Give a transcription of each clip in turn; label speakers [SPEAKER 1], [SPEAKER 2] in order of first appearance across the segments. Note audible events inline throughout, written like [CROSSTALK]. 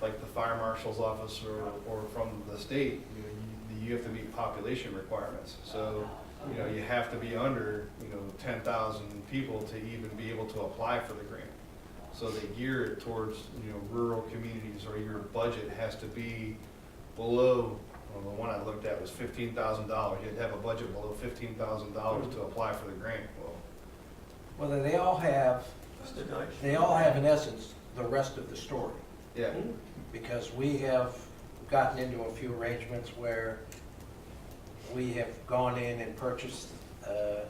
[SPEAKER 1] like the fire marshal's office or, or from the state, you know, you, you have to meet population requirements. So, you know, you have to be under, you know, ten thousand people to even be able to apply for the grant. So they gear it towards, you know, rural communities or your budget has to be below, well, the one I looked at was fifteen thousand dollars. You had to have a budget below fifteen thousand dollars to apply for the grant. Well,
[SPEAKER 2] Well, then they all have,
[SPEAKER 3] Mr. Deutsch?
[SPEAKER 2] they all have in essence the rest of the story.
[SPEAKER 1] yeah,
[SPEAKER 2] Because we have gotten into a few arrangements where we have gone in and purchased, uh,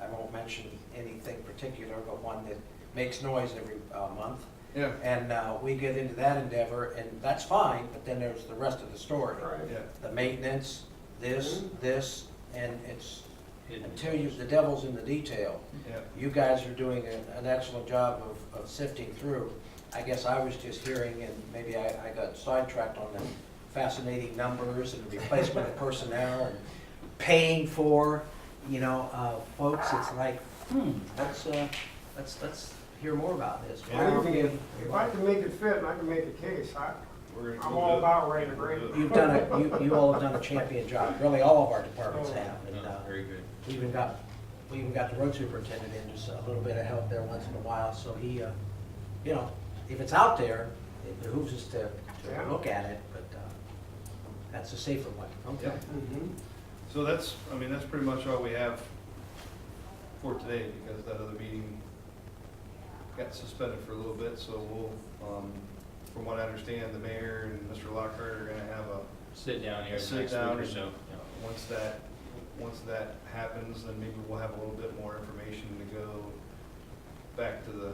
[SPEAKER 2] I won't mention anything particular, but one that makes noise every uh, month.
[SPEAKER 1] yeah,
[SPEAKER 2] And uh, we get into that endeavor, and that's fine, but then there's the rest of the story.
[SPEAKER 3] Right.
[SPEAKER 1] yeah.
[SPEAKER 2] The maintenance, this, this, and it's,
[SPEAKER 4] Hidden.
[SPEAKER 2] until you, the devil's in the detail.
[SPEAKER 1] Yeah,
[SPEAKER 2] You guys are doing a- an excellent job of, of sifting through. I guess I was just hearing, and maybe I, I got sidetracked on the fascinating numbers and replacement of personnel and paying for, you know, uh, folks, it's like, hmm, let's, uh, let's, let's hear more about this. Why
[SPEAKER 1] Yeah.
[SPEAKER 2] aren't we-
[SPEAKER 5] If I can make it fit and I can make a case, I,
[SPEAKER 1] we're gonna-
[SPEAKER 5] I'm
[SPEAKER 1] we'll
[SPEAKER 5] all
[SPEAKER 1] do it.
[SPEAKER 5] about ready to
[SPEAKER 1] We'll do
[SPEAKER 5] break.
[SPEAKER 1] it.
[SPEAKER 2] You've done a, you, you all have done a champion job, really all of our departments have. and, uh,
[SPEAKER 4] No, Very good.
[SPEAKER 2] We even got, we even got the road superintendent in just a little bit of help there once in a while, so he, uh, you know, if it's out there, it behooves us to,
[SPEAKER 5] Yeah.
[SPEAKER 2] to look at it, but, uh, that's a safer one.
[SPEAKER 1] Yeah. So that's, I mean, that's pretty much all we have for today, because that other meeting got suspended for a little bit, so we'll, um, from what I understand, the mayor and Mr. Lockhart are gonna have a,
[SPEAKER 4] Sit down here next
[SPEAKER 1] Sit
[SPEAKER 4] week
[SPEAKER 1] down
[SPEAKER 4] or
[SPEAKER 1] and-
[SPEAKER 4] so.
[SPEAKER 1] once that, once that happens, then maybe we'll have a little bit more information to go back to the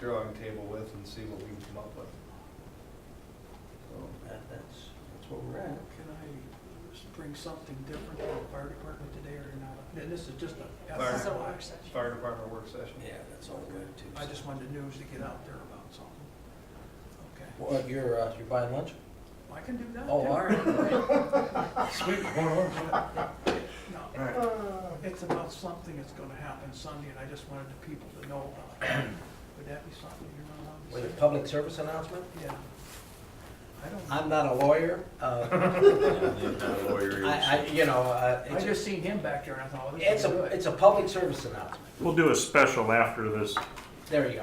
[SPEAKER 1] drawing table with and see what we can come up with. So,
[SPEAKER 2] That, that's, that's where we're at.
[SPEAKER 6] Can I just bring something different to the fire department today or not? And this is just a.
[SPEAKER 1] Fire.
[SPEAKER 7] This is a work session.
[SPEAKER 1] Fire department work session.
[SPEAKER 2] Yeah, that's all good too.
[SPEAKER 6] I just wanted the news to get out there about something. Okay,
[SPEAKER 2] Well, you're, uh, you're buying lunch?
[SPEAKER 6] I can do that.
[SPEAKER 2] Oh,
[SPEAKER 6] too.
[SPEAKER 2] all right.
[SPEAKER 1] Sweet, one of them.
[SPEAKER 6] [LAUGHS] No,
[SPEAKER 1] All right.
[SPEAKER 5] Uh,
[SPEAKER 6] It's about something that's gonna happen Sunday and I just wanted the people to know about it. Would that be something you're
[SPEAKER 2] With a
[SPEAKER 6] not allowed
[SPEAKER 2] public service announcement?
[SPEAKER 6] to say? Yeah. I don't,
[SPEAKER 2] I'm not a lawyer,
[SPEAKER 6] [LAUGHS]
[SPEAKER 2] uh, [LAUGHS] I, I, you know, uh,
[SPEAKER 6] I
[SPEAKER 2] it's,
[SPEAKER 6] just seen him back there and I thought, oh, this
[SPEAKER 2] it's
[SPEAKER 6] is
[SPEAKER 2] a,
[SPEAKER 6] good.
[SPEAKER 2] it's a public service announcement.
[SPEAKER 8] We'll do a special after this.
[SPEAKER 2] There you go.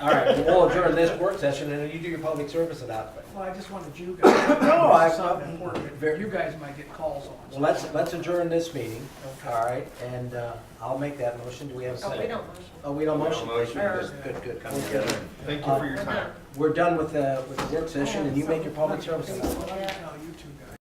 [SPEAKER 2] All right, we'll adjourn this work session, and then you do your public service announcement.
[SPEAKER 6] Well, I just wanted you guys. to
[SPEAKER 2] No,
[SPEAKER 6] know
[SPEAKER 2] I-
[SPEAKER 6] Something important.
[SPEAKER 2] Very-
[SPEAKER 6] You guys might get calls on.
[SPEAKER 2] Well, let's, let's adjourn this meeting,
[SPEAKER 6] Okay.
[SPEAKER 2] all right, and uh, I'll make that motion. Do we have a
[SPEAKER 7] Oh, we
[SPEAKER 2] second?
[SPEAKER 7] don't motion.
[SPEAKER 2] Oh, we don't
[SPEAKER 4] We
[SPEAKER 2] motion.
[SPEAKER 4] don't
[SPEAKER 2] Thank you.
[SPEAKER 7] motion.
[SPEAKER 2] Good, good, good.
[SPEAKER 4] We're good.
[SPEAKER 1] Thank you for
[SPEAKER 7] We're
[SPEAKER 1] your time.
[SPEAKER 7] done.
[SPEAKER 6] Oh,
[SPEAKER 2] We're done with the, with the work session, and you make your public service announcement.
[SPEAKER 6] Well, let me tell you two guys.